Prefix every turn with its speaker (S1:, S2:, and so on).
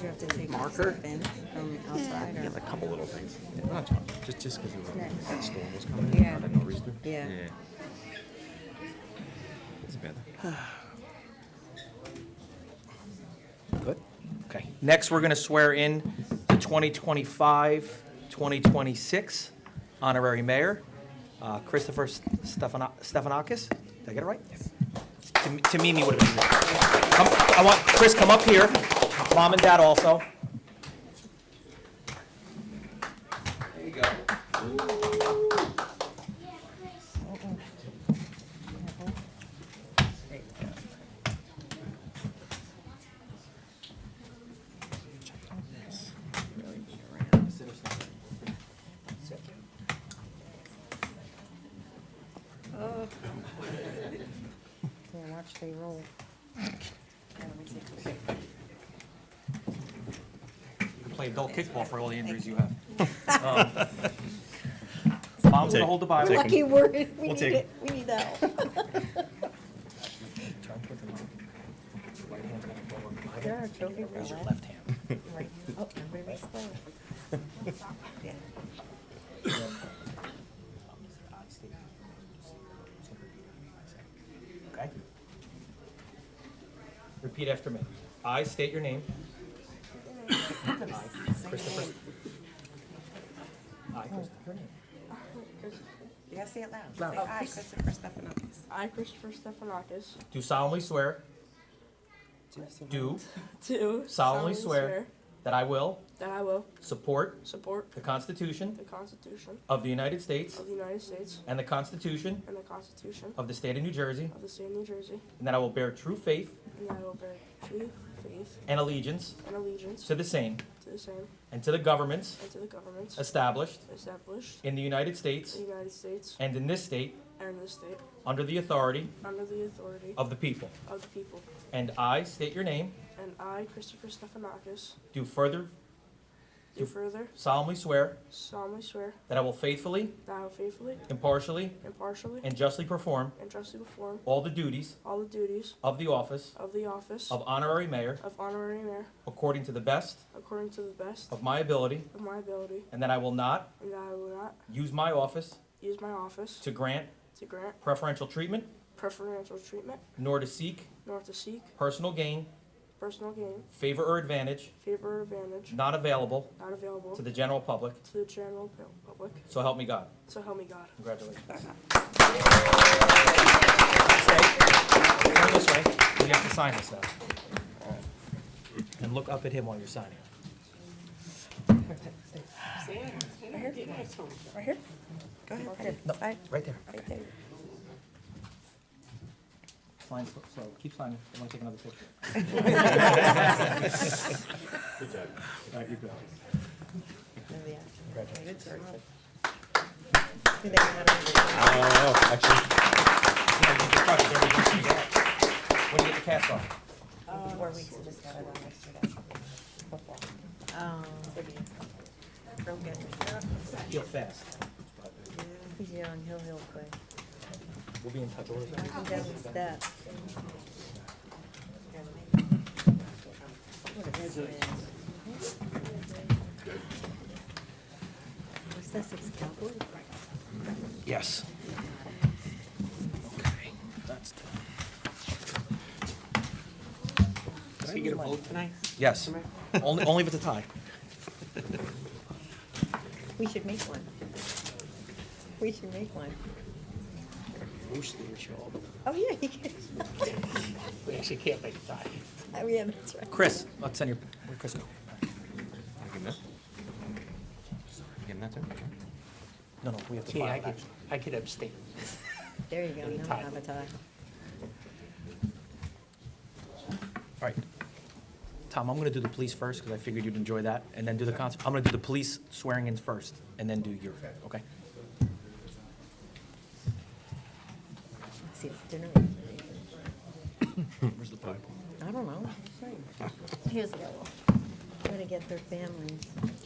S1: You have to take this
S2: Marker?
S1: stuff in from outside
S2: Yeah, a
S1: or,
S2: couple little things. We're not talking, just, just because that storm was coming
S1: Yeah.
S2: in, I had no reason.
S1: Yeah.
S2: It's bad. Good? Okay.
S3: Next, we're going to swear in the 2025, 2026 honorary mayor, uh, Christopher Stefano- Stephanakis. Did I get it right? To me- To Mimi would have been there. Come- I want, Chris, come up here. Mom and dad also. There you go.
S1: yeah, watch they roll.
S3: Play adult kickball for all the injuries you have. Um, Mom's going to hold the Bible.
S1: Lucky word, we
S2: We'll
S1: need
S2: take
S1: it, we need that help. There are trophy for
S3: Raise your
S1: that.
S3: left hand.
S1: Right. Oh, everybody slow. Yeah.
S3: Okay. Repeat after me. I state your name. I, Christopher. I, Christopher.
S1: You gotta say it loud. Loud. I, Christopher Stephanopoulos.
S4: I, Christopher Stephanakis,
S3: Do solemnly swear. Do
S4: do
S3: solemnly swear that I will
S4: that I will
S3: support
S4: support
S3: the Constitution
S4: the Constitution
S3: of the United States
S4: of the United States
S3: and the Constitution
S4: and the Constitution
S3: of the State of New Jersey,
S4: of the State of New Jersey,
S3: and that I will bear true faith
S4: and that I will bear true faith
S3: and allegiance
S4: and allegiance
S3: to the same
S4: to the same
S3: and to the governments
S4: and to the governments
S3: established
S4: established
S3: in the United States
S4: in the United States
S3: and in this state
S4: and this state
S3: under the authority
S4: under the authority
S3: of the people.
S4: of the people.
S3: And I state your name,
S4: And I, Christopher Stephanakis,
S3: do further
S4: do further
S3: solemnly swear
S4: solemnly swear
S3: that I will faithfully,
S4: that I will faithfully,
S3: impartially,
S4: impartially,
S3: and justly perform
S4: and justly perform
S3: all the duties
S4: all the duties
S3: of the office
S4: of the office
S3: of honorary mayor
S4: of honorary mayor
S3: according to the best
S4: according to the best
S3: of my ability,
S4: of my ability,
S3: and that I will not
S4: and that I will not
S3: use my office
S4: use my office
S3: to grant
S4: to grant
S3: preferential treatment
S4: preferential treatment,
S3: nor to seek
S4: nor to seek
S3: personal gain,
S4: personal gain,
S3: favor, or advantage
S4: favor, or advantage
S3: not available
S4: not available
S3: to the general public.
S4: to the general pu- public.
S3: So help me God.
S4: So help me God.
S3: Congratulations. Stay. Turn this way. You have to sign this now. And look up at him while you're signing.
S1: Right here? Go ahead. Right
S3: No,
S1: Right
S3: right there.
S1: there.
S3: Sign slow, slow. Keep signing. I want to take another picture. All right, you go.
S1: There we are. Good
S3: Congratulations.
S1: job. Do they want
S2: I don't know, actually,
S3: Yeah, you can just crush it. There we go. When you get the cast off.
S1: to- Four weeks, I just got it on yesterday. Football. Um. Don't get me.
S3: Heal fast.
S1: He's young, he'll heal quick.
S3: We'll be in touch.
S1: He doesn't step. What a business. What's that, six cowboys?
S3: Yes. Okay, that's.
S2: did he get a vote tonight?
S3: Yes. Only, only if it's a tie.
S1: We should make one. We should make one.
S2: Mostly it's your own.
S1: Oh, yeah, he can.
S2: We actually can't make a tie.
S1: Oh, yeah, that's right.
S3: Chris, let's send your, where'd Chris go?
S2: Getting that? Getting that too?
S3: No, no, we have to
S5: Gee,
S3: file
S5: I
S3: that.
S5: could, I could abstain.
S1: There you go, now I have a tie.
S3: All right. Tom, I'm gonna do the police first, because I figured you'd enjoy that, and then do the concert. I'm gonna do the police swearing in first, and then do your, okay?
S1: See, it's dinner.
S3: Where's the Bible?
S1: I don't know. Here's the. Try to get their families.